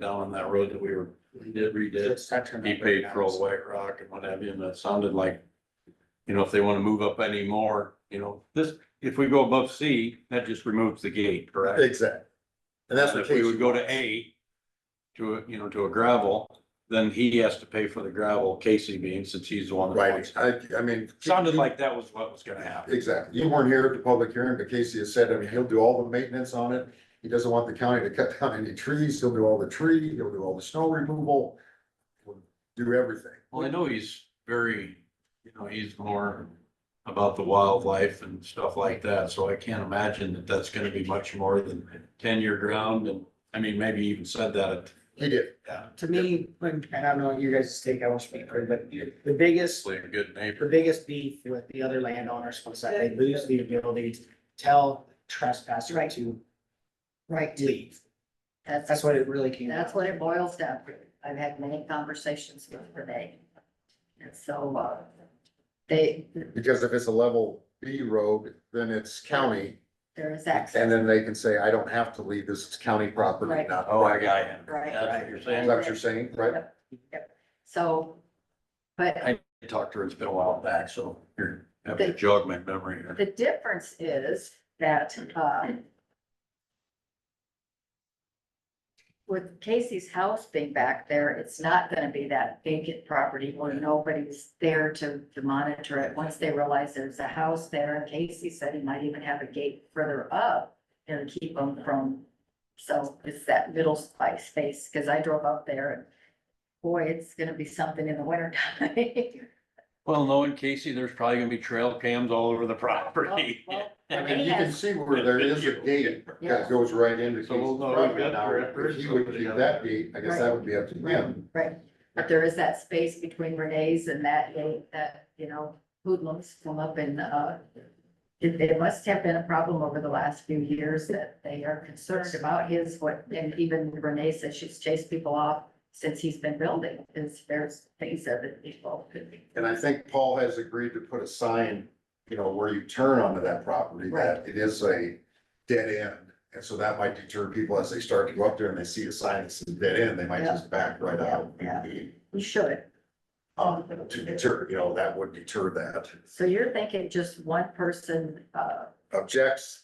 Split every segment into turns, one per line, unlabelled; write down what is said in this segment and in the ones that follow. down on that road that we were, we did redid. He paid for all the white rock and what have you, and it sounded like, you know, if they wanna move up any more, you know, this, if we go above C, that just removes the gate, correct?
Exactly. And that's
And
what
If we
Casey
would go to
wants.
A, to, a you know, to a gravel, then he has to pay for the gravel, Casey being, since he's the one that
Right,
wants. it.
I, I mean.
Sounded like that was what was gonna happen.
Exactly. You weren't here at the public hearing, but Casey has said, I mean, he'll do all the maintenance on it. He doesn't want the county to cut down any trees. He'll do all the tree, he'll do all the snow removal. He'll Do everything.
Well, I know he's very, you know, he's more about the wildlife and stuff like that, so I can't imagine that that's gonna be much more than ten-year ground and, I mean, maybe even said that.
He did.
To me, when, and I don't know you guys take, I won't speak for, you, but the biggest,
Actually, a good
the
neighbor.
biggest beef with the other landowners was that they lose the ability to tell trespassers
Right.
to
Right,
leave.
that's,
That's what it really came down
that's
to.
what it boils down to. I've had many conversations with Renee. And so, uh, they,
Because if it's a level B road, then it's county.
there is
And
access,
then they can say, I don't have to leave this is county property,
Right.
not.
Oh, I got you.
right?
That's what you're
Is
saying.
that what you're saying? Right?
So, but
I talked to her, it's been a while back, so you're having to jog my memory here.
the difference is that, uh, with Casey's house being back there, it's not gonna be that vacant property where nobody's there to, to monitor it. Once they realize there's a house there, and Casey said he might even have a gate further up and keep them from, so it's that middle spy space, cause I drove up there and boy, it's gonna be something in the winter time.
Well, knowing Casey, there's probably gonna be trail cams all over the property.
Well,
I mean, you can see where there is a gate
Yeah.
that goes right into
So we'll
Casey's
know
property.
we've got
Now,
directors,
If he would
somebody
keep
else.
that gate, I guess that would be up to him.
Right, but there is that space between Renee's and that, that, you know, hoodlums come up and, uh, it, it must have been a problem over the last few years that they are concerned about his, what, and even Renee says she's chased people off since he's been building, is there's things there that people could be.
And I think Paul has agreed to put a sign, you know, where you turn onto that property, that it is a dead end. And so that might deter people as they start to go up there and they see a sign that says dead end, they might just back right out.
Yeah, You should.
Um, to deter, you know, that would deter that.
So you're thinking just one person, uh,
Objects,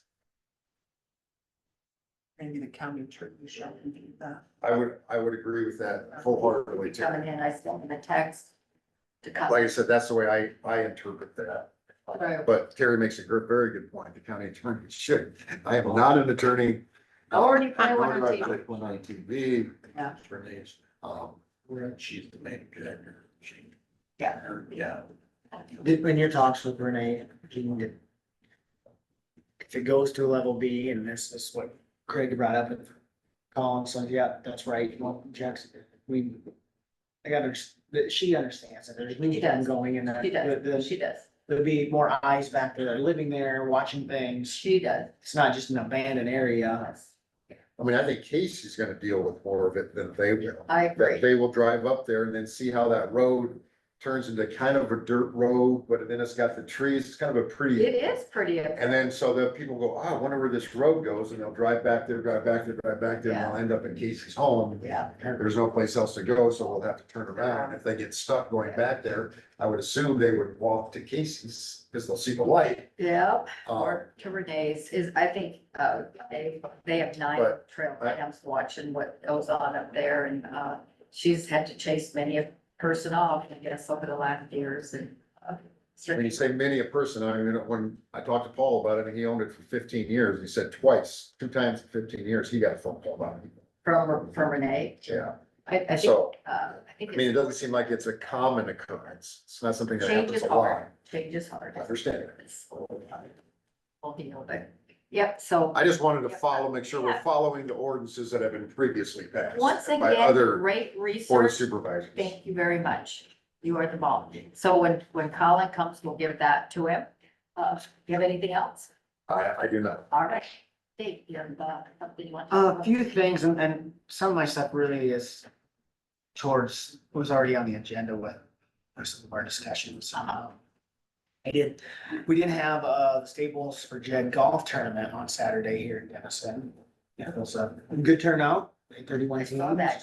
Maybe the county attorney shall review that.
I would, I would agree with that full heartedly too.
coming in, I sent him a text to come.
Like I said, that's the way I, I interpret that.
Right.
But Terry makes a gr- very good point. The county attorney should. I am not an attorney.
Or you put it
Nor
on
do I
TV.
put one on TV.
Yeah.
Her name's,
Um,
she's the main character. She-
Yeah.
Yeah.
Did- When your talks with Renee, Keaton, did- if it goes to a level B and this is what Craig brought up and Colin said, yeah, that's right, well, Jackson, we, I got her, that she understands that there's
She
need
does.
going and
She
that the-
does,
the-
she does,
there'd be more eyes back there, living there, watching things.
she does.
It's not just an abandoned area.
I mean, I think Casey's gonna deal with more of it than they will.
I
That
agree,
they will drive up there and then see how that road turns into kind of a dirt road, but then it's got the trees, it's kind of a pretty.
it is pretty,
And then so the people go, "Ah, I wonder where this road goes, and they'll drive back there, drive back there, drive back there, and they'll end up in Casey's home.
yeah,
There's no place else to go, so we'll have to turn around. If they get stuck going back there, I would assume they would walk to Casey's, because they'll see the light.
yeah,
Um,
or to Renee's is, I think, uh, they, they have nine
But
trail
I-
cams watching what goes on up there and, uh, she's had to chase many a person off, I guess, over the last years and. uh,
When you say many a person, I mean, when I talked to Paul about it, and he owned it for fifteen years, he said twice, two times in fifteen years, he got a phone call about it.
From, from Renee,
Yeah,
I, I think,
so,
uh, I think.
I mean, it doesn't seem like it's a common occurrence, it's not something that
Change
happens a
is hard,
lot.
change is hard.
I understand.
It's- uh, Well, you know, but, yep, so.
I just wanted to follow, make sure we're following the ordinances that have been previously passed.
Once
By
again,
other
great
board of
research.
supervisors.
Thank you very much. You are the ball. So when, when Colin comes, we'll give that to him. Uh, you have anything else?
I, I do not.
All right. Dave, you have, uh, something you want? to
A few things and, and some of my stuff really is towards, was already on the agenda with some of our discussions. Um, I did, we did have, uh, the Staples for Jed Golf Tournament on Saturday here in Denison. It was a good turnout, thirty-one
Saw that,
teams.